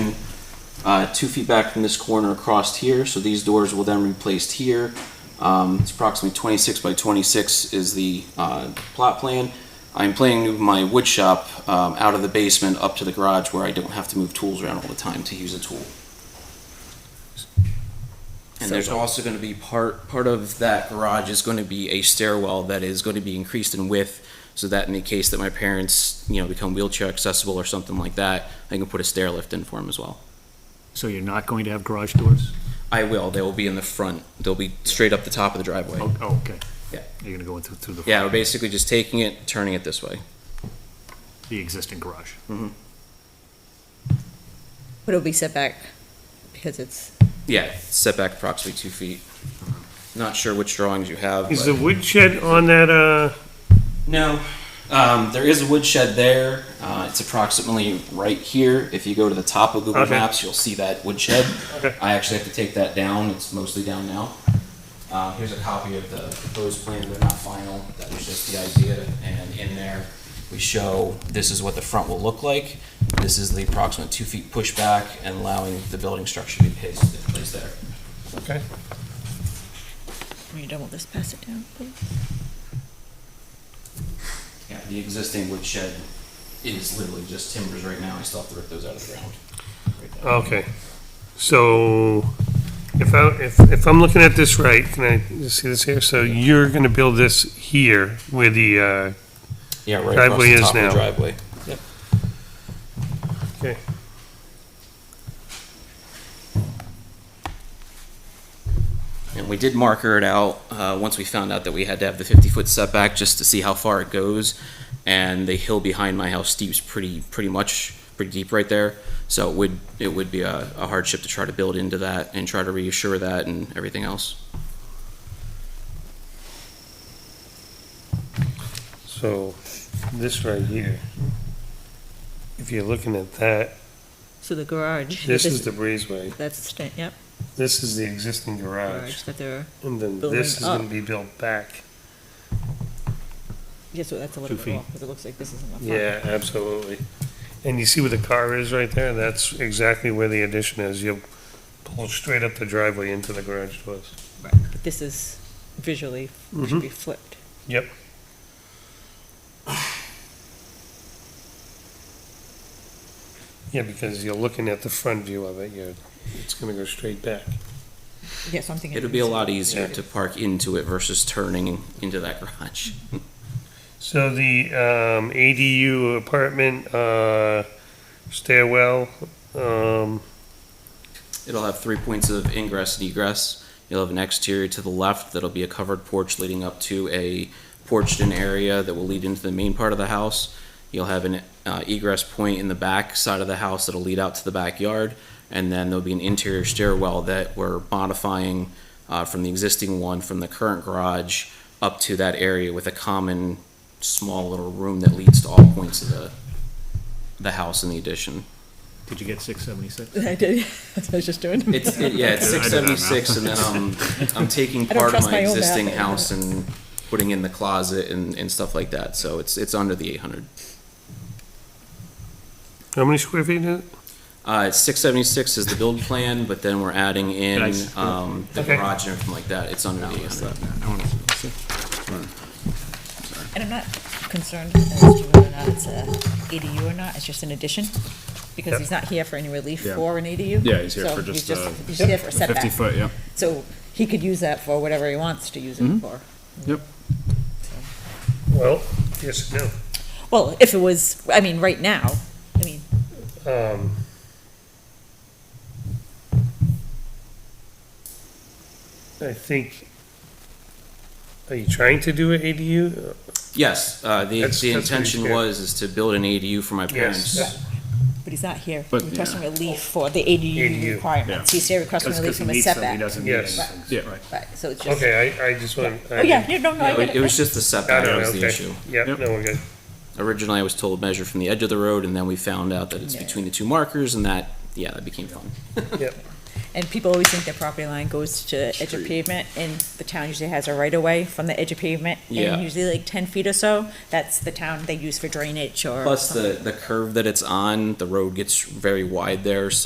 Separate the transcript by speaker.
Speaker 1: uh, two feet back from this corner across here. So these doors will then be placed here. Um, it's approximately 26 by 26 is the uh, plot plan. I'm planning to move my wood shop um, out of the basement up to the garage where I don't have to move tools around all the time to use a tool. And
Speaker 2: So-
Speaker 1: there's also going to be part part of that garage is going to be a stairwell that is going to be increased in width, so that in the case that my parents you know become wheelchair accessible or something like that, I can put a stair lift in for them as well.
Speaker 3: So you're not going to have garage doors?
Speaker 1: I will. They will be in the front. They'll be straight up the top of the driveway.
Speaker 3: Oh, oh, okay.
Speaker 1: Yeah.
Speaker 3: You're gonna go into, through the.
Speaker 1: Yeah, we're basically just taking it, turning it this way.
Speaker 3: The existing garage.
Speaker 2: But it'll be set back because it's,
Speaker 1: Yeah, setback approximately two feet. Not sure which drawings you have.
Speaker 4: Is
Speaker 1: but-
Speaker 4: the woodshed on that, uh,
Speaker 1: No. Um, there is a woodshed there. Uh, it's approximately right here. If you go to the top of Google
Speaker 4: Okay.
Speaker 1: Maps, you'll see that woodshed.
Speaker 4: Okay.
Speaker 1: I actually have to take that down. It's mostly down now. Uh, here's a copy of the proposed plan. They're not final. That was just the idea. And in there, we show this is what the front will look like. This is the approximate two feet pushback and allowing the building structure to be placed in place there.
Speaker 4: okay,
Speaker 2: when you're done with this, pass it down, please.
Speaker 1: Yeah, the existing woodshed is literally just timbers right now. I still have to rip those out of the ground. Right there.
Speaker 4: okay. So if I, if, if I'm looking at this right, can I just see this here? So you're gonna build this here where the, uh,
Speaker 1: Yeah, right
Speaker 4: Driveway is
Speaker 1: across the top of
Speaker 4: now.
Speaker 1: the driveway.
Speaker 4: okay.
Speaker 1: And we did marker it out, uh, once we found out that we had to have the fifty-foot setback, just to see how far it goes. And the hill behind my house steeps pretty, pretty much, pretty deep right there. So it would, it would be a a hardship to try to build into that and try to reassure that and everything else.
Speaker 4: So this right here, if you're looking at that,
Speaker 2: So the garage.
Speaker 4: this is the breezeway.
Speaker 2: That's, the sta- yep,
Speaker 4: This is the existing
Speaker 2: garage
Speaker 4: garage.
Speaker 2: that they're,
Speaker 4: And then
Speaker 2: Building
Speaker 4: this is gonna
Speaker 2: up.
Speaker 4: be built back.
Speaker 2: yes, so that's a little
Speaker 3: Two
Speaker 2: bit
Speaker 3: feet.
Speaker 2: off, because it looks like this is in the front.
Speaker 4: Yeah, absolutely. And you see where the car is right there? That's exactly where the addition is. You'll pull straight up the driveway into the garage doors.
Speaker 2: Right, but this is visually,
Speaker 5: Mm-hmm.
Speaker 2: should be flipped.
Speaker 4: Yep. Yeah, because you're looking at the front view of it, you're, it's gonna go straight back.
Speaker 2: Yes, I'm thinking.
Speaker 1: It'd be a lot
Speaker 4: Yeah.
Speaker 1: easier to park into it versus turning into that garage.
Speaker 4: So the, um, ADU apartment, uh, stairwell, um,
Speaker 1: It'll have three points of ingress and egress. You'll have an exterior to the left that'll be a covered porch leading up to a porched-in area that will lead into the main part of the house. You'll have an uh, egress point in the back side of the house that'll lead out to the backyard, and then there'll be an interior stairwell that we're modifying uh, from the existing one from the current garage up to that area with a common small little room that leads to all points of the the house and the addition.
Speaker 3: Did you get six seventy-six?
Speaker 2: I did, that's what I was just doing.
Speaker 1: It's, it- yeah, it's
Speaker 3: I did
Speaker 1: six
Speaker 3: that now.
Speaker 1: seventy-six, and then I'm, I'm taking
Speaker 2: don't
Speaker 1: part of
Speaker 2: trust
Speaker 1: my
Speaker 2: my own
Speaker 1: existing
Speaker 2: bathroom.
Speaker 1: house and putting in the closet and, and stuff like that, so it's, it's under the eight hundred.
Speaker 4: how many square feet is it?
Speaker 1: Uh, six seventy-six is the build plan, but then we're adding in,
Speaker 3: Nice.
Speaker 1: um, the
Speaker 4: Okay.
Speaker 1: garage and everything like that, it's under the eight hundred.
Speaker 2: And I'm not concerned as to whether or not it's a ADU or not, it's just an addition, because
Speaker 4: Yep.
Speaker 2: he's not here for any relief
Speaker 5: Yeah.
Speaker 2: for an ADU.
Speaker 5: Yeah, he's here
Speaker 2: so
Speaker 5: for just a-
Speaker 2: He's here for a
Speaker 5: Fifty
Speaker 2: setback,
Speaker 5: foot, yeah.
Speaker 2: so he could use that for whatever he wants to use
Speaker 5: Mm-hmm.
Speaker 2: it for.
Speaker 5: Yep.
Speaker 4: Well, yes, no.
Speaker 2: Well, if it was, I mean, right now, I mean,
Speaker 4: Um, I think, are you trying to do an ADU?
Speaker 1: Yes, uh, the,
Speaker 4: That's-
Speaker 1: the
Speaker 4: that's what he's
Speaker 1: intention
Speaker 4: here.
Speaker 1: was, is to build an ADU for my parents.
Speaker 4: Yes.
Speaker 2: but he's not here
Speaker 5: But,
Speaker 2: requesting
Speaker 5: yeah.
Speaker 2: relief for the
Speaker 4: ADU,
Speaker 2: ADU requirements, he's here requesting relief from a setback.
Speaker 3: doesn't
Speaker 4: need Yes. anything,
Speaker 5: Yeah. Right.
Speaker 2: Right, so it's just,
Speaker 4: Okay, I, I just want.
Speaker 2: oh, yeah, no, no, no, I
Speaker 1: Yeah,
Speaker 2: get
Speaker 1: It it was just the
Speaker 4: I
Speaker 1: setback that
Speaker 4: don't know,
Speaker 1: was the
Speaker 4: okay.
Speaker 1: issue.
Speaker 4: Yep,
Speaker 5: Yep.
Speaker 4: no, we're good.
Speaker 1: Originally, I was told measure from the edge of the road, and then we found out that it's
Speaker 2: Yeah.
Speaker 1: between the two markers, and that, yeah, that became fun.
Speaker 2: And people always think their property line goes to the edge of pavement, and the town usually has a right-of-way from the edge of pavement,
Speaker 1: Yeah.
Speaker 2: and usually like ten feet or so, that's the town they use for drainage or
Speaker 1: Plus, the, the curve that it's on, the road gets very wide there,